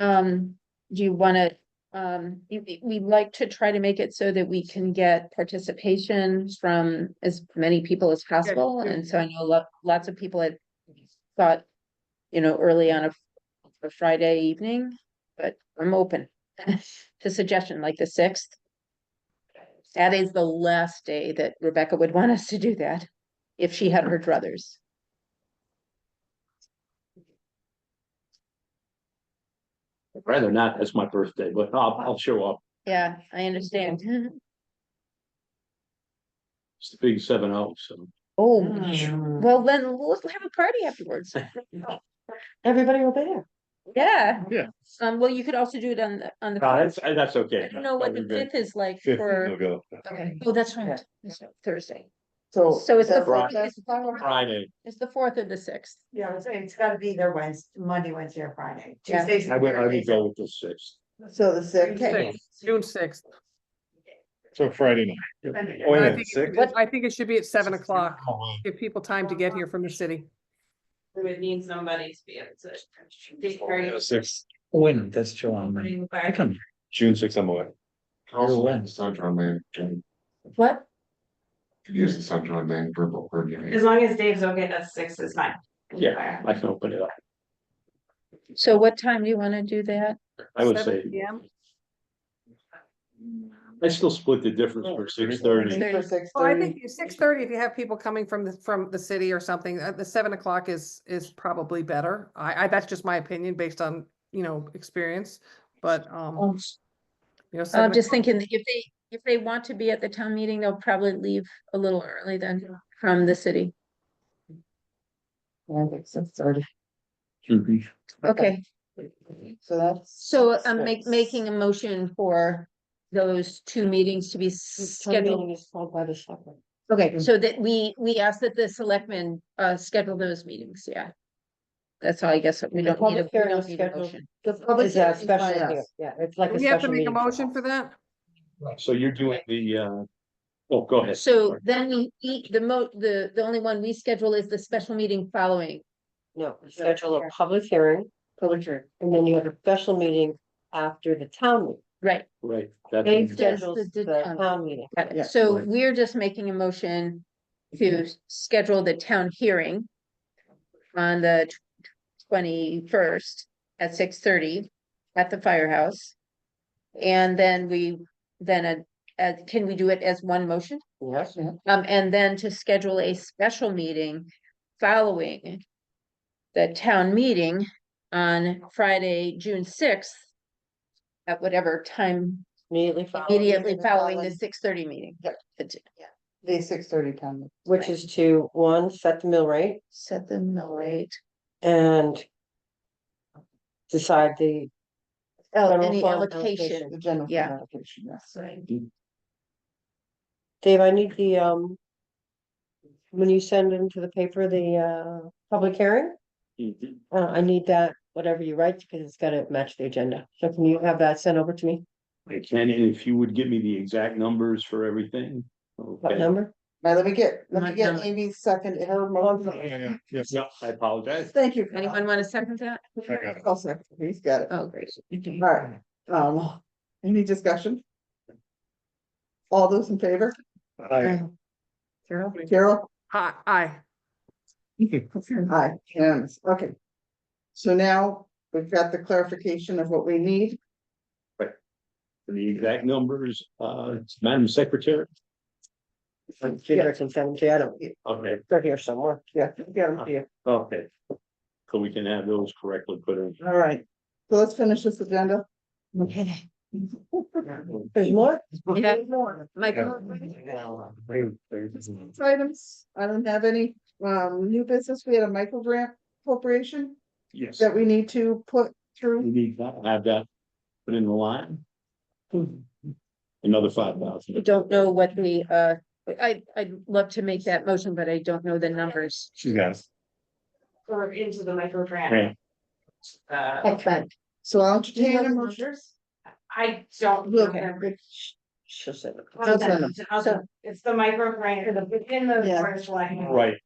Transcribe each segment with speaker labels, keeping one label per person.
Speaker 1: Um, do you wanna, um, you- you- we like to try to make it so that we can get participation from as many people as possible,
Speaker 2: good.
Speaker 1: and so I know lo- lots of people had thought, you know, early on a a Friday evening, but I'm open to suggestion, like the sixth. That is the last day that Rebecca would want us to do that, if she had her druthers.
Speaker 3: I'd Rather not, that's my birthday, but I'll, I'll show up.
Speaker 1: Yeah, I understand.
Speaker 3: It's the big seven oh, so.
Speaker 1: Oh,
Speaker 2: Mm.
Speaker 1: well, then let's have a party afterwards. Oh,
Speaker 2: Everybody will be there.
Speaker 1: Yeah.
Speaker 3: Yeah.
Speaker 1: Um, well, you could also do it on the, on the.
Speaker 3: No, that's, uh, that's okay.
Speaker 1: I don't know what the fifth is like for,
Speaker 3: go.
Speaker 2: Okay.
Speaker 1: oh, that's right,
Speaker 2: Yeah.
Speaker 1: that's right, Thursday.
Speaker 2: So.
Speaker 1: So it's the, fourth-
Speaker 3: Friday.
Speaker 1: it's the fourth-
Speaker 3: Friday,
Speaker 1: it's the fourth or the sixth.
Speaker 2: Yeah, it's, it's gotta be there Wednesday, Monday, Wednesday or Friday.
Speaker 1: Yeah.
Speaker 2: Tuesdays
Speaker 3: I would, I would
Speaker 2: Thursdays.
Speaker 3: go with the sixth.
Speaker 2: So the sixth.
Speaker 4: Sixth, June sixth.
Speaker 3: So Friday night.
Speaker 2: Oh,
Speaker 4: I
Speaker 2: yeah,
Speaker 4: think it- I think it should be at seven o'clock.
Speaker 1: Oh,
Speaker 4: Give people time to get here from the city.
Speaker 5: We would need somebody to be able to. take very-
Speaker 3: Six,
Speaker 6: When, that's July, man.
Speaker 5: bring
Speaker 6: I
Speaker 5: back-
Speaker 6: come,
Speaker 3: June sixth, I'm away.
Speaker 7: Also,
Speaker 6: when?
Speaker 7: the Sunshine Land, can
Speaker 1: What?
Speaker 7: use the Sunshine Land verbal coordinator.
Speaker 5: As long as Dave's okay, that's six is fine.
Speaker 3: Yeah, I can open it up.
Speaker 1: So what time do you wanna do that?
Speaker 3: I would
Speaker 4: 7
Speaker 3: say,
Speaker 4: PM.
Speaker 3: I still split the difference for six thirty.
Speaker 2: For six
Speaker 4: Well, I
Speaker 2: thirty.
Speaker 4: think six thirty, if you have people coming from the, from the city or something, uh, the seven o'clock is, is probably better. I, I, that's just my opinion based on, you know, experience, but, um,
Speaker 2: Oh,
Speaker 4: you know.
Speaker 1: I'm
Speaker 4: seven
Speaker 1: just
Speaker 4: o'clock-
Speaker 1: thinking, that if they, if they want to be at the town meeting, they'll probably leave a little early then from the city.
Speaker 2: Yeah, I think six thirty.
Speaker 1: Okay,
Speaker 2: So that's.
Speaker 1: so I'm make,
Speaker 2: six.
Speaker 1: making a motion for those two meetings to be
Speaker 2: This
Speaker 1: scheduled
Speaker 2: meeting is called by the selectmen.
Speaker 1: Okay,
Speaker 2: Mhm.
Speaker 1: so that we, we ask that the selectmen, uh, schedule those meetings, yeah. That's all, I guess, we
Speaker 2: The
Speaker 1: don't need a,
Speaker 2: public
Speaker 1: we
Speaker 2: hearing
Speaker 1: don't
Speaker 2: is
Speaker 1: need a
Speaker 2: scheduled.
Speaker 1: motion.
Speaker 2: The public
Speaker 1: hearing
Speaker 2: is
Speaker 1: is
Speaker 2: a special,
Speaker 1: by us.
Speaker 2: meeting, yeah, it's like
Speaker 4: Do
Speaker 2: a
Speaker 4: We have to
Speaker 2: special
Speaker 4: make a
Speaker 2: meeting.
Speaker 4: motion for that?
Speaker 3: So you're doing the, uh, oh, go ahead.
Speaker 1: So then we, eat the mo, the, the only one we schedule is the special meeting following.
Speaker 8: No, you schedule a public hearing,
Speaker 2: Public hearing.
Speaker 8: and then you have a special meeting after the town meeting.
Speaker 1: Right.
Speaker 3: Right, that's.
Speaker 8: They
Speaker 1: Yes, the-
Speaker 8: schedule
Speaker 1: the
Speaker 8: the
Speaker 1: town.
Speaker 8: town meeting.
Speaker 1: Got it.
Speaker 2: Yeah,
Speaker 1: So
Speaker 3: right.
Speaker 1: we're just making a motion
Speaker 2: Mm-hmm.
Speaker 1: to schedule the town hearing on the twenty-first at six thirty at the firehouse. And then we, then, uh, uh, can we do it as one motion?
Speaker 8: Yes.
Speaker 1: Um, and then to schedule a special meeting following the town meeting on Friday, June sixth at whatever time
Speaker 8: Immediately following.
Speaker 1: immediately
Speaker 2: the
Speaker 1: following the
Speaker 2: following-
Speaker 1: six thirty meeting.
Speaker 2: Yeah.
Speaker 1: But to
Speaker 2: The six thirty time.
Speaker 8: Which is to, one, set the mill rate
Speaker 1: Set the mill rate.
Speaker 8: and decide the,
Speaker 1: Oh,
Speaker 8: Federal
Speaker 1: any
Speaker 8: fund
Speaker 1: allocation.
Speaker 8: allocation.
Speaker 2: The general.
Speaker 1: Yeah.
Speaker 2: fund allocation, yes.
Speaker 8: Dave, I need the, um, when you send into the paper, the, uh, public hearing,
Speaker 3: Mhm.
Speaker 8: uh, I need that, whatever you write, because it's gotta match the agenda. So can you have that sent over to me?
Speaker 3: I can, and if you would give me the exact numbers for everything.
Speaker 8: What
Speaker 3: okay.
Speaker 8: number?
Speaker 2: Now, let me get, let
Speaker 1: My
Speaker 2: me get
Speaker 1: God.
Speaker 2: Amy's second, her motion.
Speaker 3: Yes, yeah, I apologize.
Speaker 2: Thank you. Phil.
Speaker 1: Anyone want to second that?
Speaker 2: Oh, second, He's got it.
Speaker 1: Oh, great.
Speaker 2: All right, um, any discussion? All those in favor?
Speaker 3: Uh,
Speaker 1: Carol?
Speaker 2: Carol?
Speaker 4: Hi, aye.
Speaker 2: Aye, unanimous, okay. So now we've got the clarification of what we need.
Speaker 3: For The exact numbers, uh, Madam Secretary.
Speaker 8: Figures and seven, I don't,
Speaker 3: Okay,
Speaker 8: they're here somewhere.
Speaker 2: Yeah, yeah, yeah.
Speaker 3: okay. So we can have those correctly put in.
Speaker 2: All right, so let's finish this agenda.
Speaker 1: Okay.
Speaker 8: There's more?
Speaker 1: Yeah. Michael?
Speaker 2: Items, I don't have any, um, new business. We had a micro grant appropriation
Speaker 3: Yes.
Speaker 2: that we need to put
Speaker 3: We
Speaker 2: through.
Speaker 3: need that, have that put in the line. Another five thousand.
Speaker 1: I don't know what the, uh, I, I'd love to make that motion, but I don't know the numbers.
Speaker 3: She's got it.
Speaker 5: Or into the micro grant.
Speaker 3: Grant.
Speaker 5: Uh,
Speaker 1: Excellent.
Speaker 2: So I'll
Speaker 5: do you
Speaker 2: entertain
Speaker 5: know
Speaker 2: a
Speaker 5: the
Speaker 2: motion.
Speaker 5: numbers? I don't. know them.
Speaker 8: She'll send it.
Speaker 5: I'll
Speaker 2: Okay.
Speaker 5: send it. I'll send it. It's the micro grant, or the, within the
Speaker 2: Yeah.
Speaker 5: first line.
Speaker 3: Right.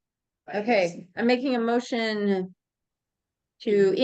Speaker 1: Okay, I'm making a motion to